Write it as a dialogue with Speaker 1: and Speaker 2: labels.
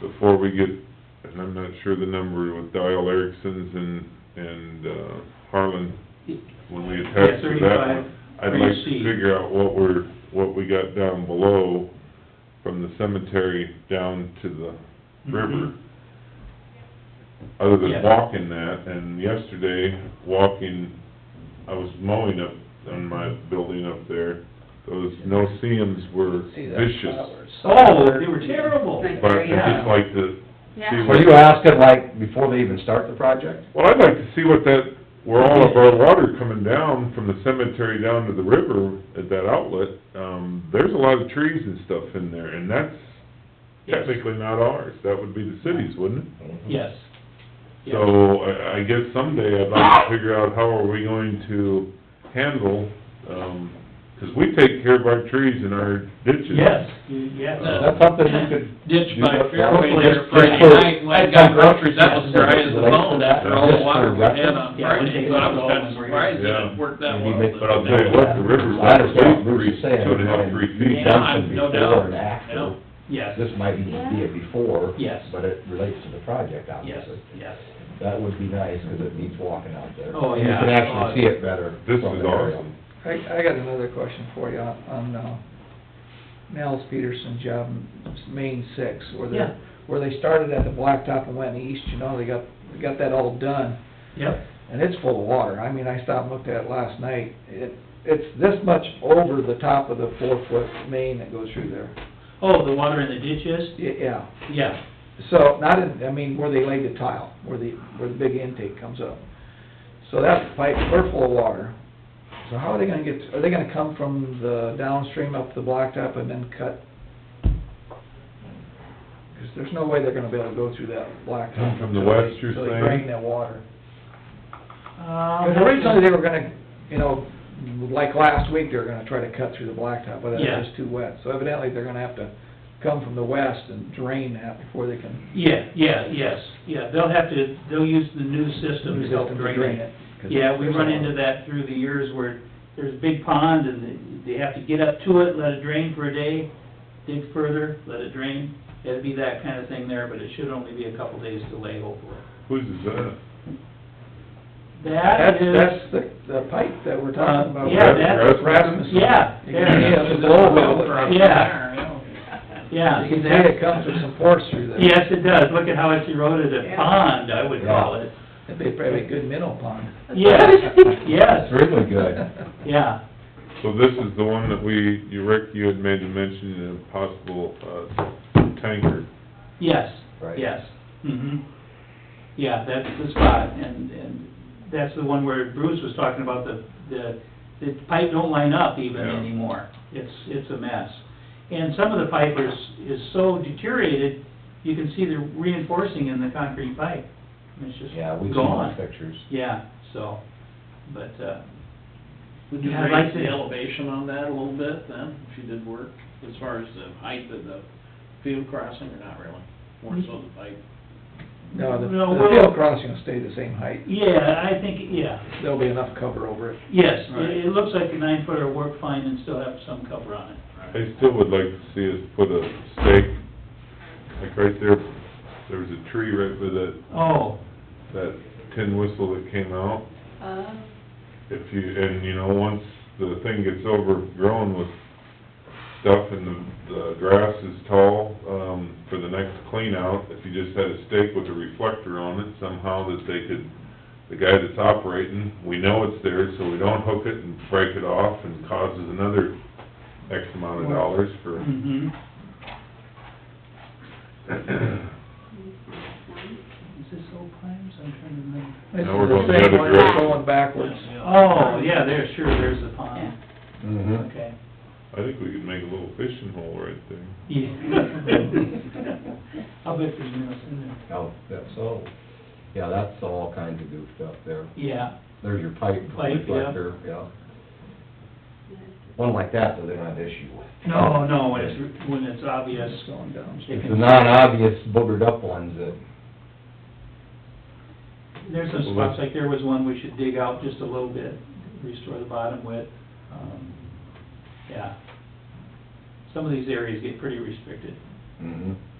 Speaker 1: before we get, and I'm not sure the number with Dial Erickson's and, and uh, Harlan, when we attach to that one. I'd like to
Speaker 2: 35,
Speaker 1: figure out what we're, what we got down below, from the cemetery down to the river. Other than
Speaker 2: Yeah.
Speaker 1: walking that, and yesterday, walking, I was mowing up on my building up there, those no-see-ums were
Speaker 3: See that
Speaker 1: vicious.
Speaker 3: flowers.
Speaker 2: Oh, they were terrible.
Speaker 4: Right.
Speaker 1: But I just like to see
Speaker 4: Yeah.
Speaker 5: Were you asking like before they even start the project?
Speaker 1: Well, I'd like to see what that, where all of our water coming down from the cemetery down to the river at that outlet, um, there's a lot of trees and stuff in there, and that's
Speaker 2: Yes.
Speaker 1: technically not ours, that would be the city's, wouldn't it?
Speaker 2: Yes. Yes.
Speaker 1: So, I, I guess someday I'd like to figure out how are we going to handle, um 'cause we take care of our trees and our ditches. Uh,
Speaker 2: Yes, you- yes.
Speaker 5: Is that something you could?
Speaker 6: ditch
Speaker 5: do
Speaker 6: by
Speaker 5: that
Speaker 6: Fairway
Speaker 5: for?
Speaker 6: there
Speaker 5: Just-
Speaker 6: Friday
Speaker 5: just for-
Speaker 6: night, when I got groceries, that was dry as a bone after all the water we had on
Speaker 2: Yeah, we
Speaker 6: Friday,
Speaker 2: take
Speaker 6: so I
Speaker 2: it
Speaker 6: was
Speaker 2: all
Speaker 6: kinda
Speaker 2: and we're-
Speaker 6: surprised that
Speaker 1: Yeah.
Speaker 6: it worked that
Speaker 5: Maybe
Speaker 6: well.
Speaker 5: make-
Speaker 1: But I'll tell you what, the river's
Speaker 5: I understand
Speaker 1: like
Speaker 5: what
Speaker 1: three,
Speaker 5: Bruce is
Speaker 1: two
Speaker 5: saying.
Speaker 1: and a half, three feet.
Speaker 6: Yeah.
Speaker 5: Something
Speaker 6: no
Speaker 5: before and
Speaker 6: doubt.
Speaker 5: after.
Speaker 6: No.
Speaker 2: Yes,
Speaker 5: This might even be a before.
Speaker 2: Yes.
Speaker 5: But it relates to the project,
Speaker 2: yes,
Speaker 5: obviously.
Speaker 2: yes.
Speaker 5: That would be nice, because it needs walking out there.
Speaker 2: Oh,
Speaker 5: And You
Speaker 2: yeah.
Speaker 5: can
Speaker 2: Oh,
Speaker 5: actually see it better.
Speaker 1: This is
Speaker 5: from the aerial.
Speaker 1: awesome.
Speaker 3: I, I got another question for you on, on, uh, Nels Peterson job, main six, where
Speaker 2: Yeah.
Speaker 3: they, where they started at the blacktop and went east, you know, they got, they got that all done.
Speaker 2: Yep,
Speaker 3: And it's full of water. I mean, I stopped and looked at it last night. It, it's this much over the top of the four-foot main that goes through there.
Speaker 2: oh, the water in the ditches,
Speaker 3: Y- Yeah.
Speaker 2: yeah,
Speaker 3: So, not in, I mean, where they laid the tile, where the, where the big intake comes up. So that pipe, we're full of water. So how are they gonna get, are they gonna come from the downstream up the blacktop and then cut? Because there's no way they're gonna be able to go through that blacktop.
Speaker 1: Come from the
Speaker 3: until they-
Speaker 1: west, you're
Speaker 3: until they
Speaker 1: saying?
Speaker 3: drain that water.
Speaker 2: uh.
Speaker 3: Because originally they were gonna, you know, like last week, they were gonna try to cut through the blacktop, but it
Speaker 2: Yeah.
Speaker 3: was just too wet. So evidently, they're gonna have to come from the west and drain that before they can.
Speaker 2: Yeah, yeah, yes, yeah, they'll have to, they'll use the new system to help drain it.
Speaker 3: 'Cause
Speaker 2: Yeah, we
Speaker 3: there's a
Speaker 2: run
Speaker 3: lot.
Speaker 2: into that through the years where there's a big pond and they they have to get up to it, let it drain for a day, dig further, let it drain. It'd be that kind of thing there, but it should only be a couple days delay hopefully.
Speaker 1: Whose is that?
Speaker 2: That
Speaker 3: That's,
Speaker 2: is,
Speaker 3: that's the, the pipe that we're
Speaker 2: Uh,
Speaker 3: talking about.
Speaker 2: yeah, that's-
Speaker 3: Rasmussen.
Speaker 2: yeah,
Speaker 3: You
Speaker 2: yeah.
Speaker 3: can see it's a blow well that-
Speaker 2: Yeah. yeah.
Speaker 3: You can see
Speaker 2: exactly.
Speaker 3: it comes with some force through there.
Speaker 2: Yes, it does. Look at how it's eroded a pond, I would call it.
Speaker 3: It'd be probably a good minnow pond.
Speaker 2: Yes, yes,
Speaker 5: That's really good.
Speaker 2: yeah.
Speaker 1: So this is the one that we, you, Rick, you had made a mention of possible, uh, tanker.
Speaker 2: Yes,
Speaker 5: Right.
Speaker 2: yes, mhm. Yeah, that's the spot, and, and that's the one where Bruce was talking about the, the, the pipe don't line up even
Speaker 1: Yeah.
Speaker 2: anymore. It's, it's a mess. And some of the pipe is, is so deteriorated, you can see the reinforcing in the concrete pipe. And It's just
Speaker 5: Yeah, we've seen those
Speaker 2: gone.
Speaker 5: pictures.
Speaker 2: Yeah, so, but, uh,
Speaker 6: Would you
Speaker 2: Yeah, I'd like
Speaker 6: raise the
Speaker 2: to-
Speaker 6: elevation on that a little bit then, if you did work, as far as the height of the field crossing, or not really? More so the pipe.
Speaker 3: No, the,
Speaker 2: No,
Speaker 3: the
Speaker 2: we'll-
Speaker 3: field crossing will stay the same height.
Speaker 2: yeah, I think, yeah,
Speaker 3: There'll be enough cover over it.
Speaker 2: yes,
Speaker 6: Right.
Speaker 2: it, it looks like the nine footer worked fine and still have some cover on it.
Speaker 1: I still would like to see us put a stake, like right there, there was a tree right by that,
Speaker 2: Oh,
Speaker 1: that tin whistle that came out.
Speaker 4: Uh,
Speaker 1: If you, and you know, once the thing gets overgrown with stuff and the, the grass is tall, um, for the next clean out, if you just had a stake with a reflector on it somehow that they could, the guy that's operating, we know it's there, so we don't hook it and break it off and causes another X amount of dollars for
Speaker 2: Mm-hmm. Is this old Climbs? I'm trying to remember.
Speaker 3: This
Speaker 1: Now we're
Speaker 3: is the
Speaker 1: going the
Speaker 3: same
Speaker 1: other
Speaker 3: one
Speaker 4: direction.
Speaker 3: Going backwards.
Speaker 2: Oh, yeah, there's, sure, there's the pond.
Speaker 5: Mm-hmm.
Speaker 2: Okay.
Speaker 1: I think we could make a little fishing hole right there.
Speaker 2: Yeah. I'll bet there's minnows in there.
Speaker 5: Oh, that's so, yeah, that's all kinds of goofed up there.
Speaker 2: Yeah,
Speaker 5: There's your pipe
Speaker 2: Pipe, yeah.
Speaker 5: reflector, yeah. One like that, though, they don't have issue with.
Speaker 2: no, no, when it's, when it's obvious.
Speaker 3: It's going down.
Speaker 2: they
Speaker 5: It's the
Speaker 2: can-
Speaker 5: non-obvious boogered up ones that,
Speaker 2: There's some spots, like there was one we should dig out just a little bit, restore the bottom width. Um, Yeah. Some of these areas get pretty restricted.
Speaker 5: mm-hmm.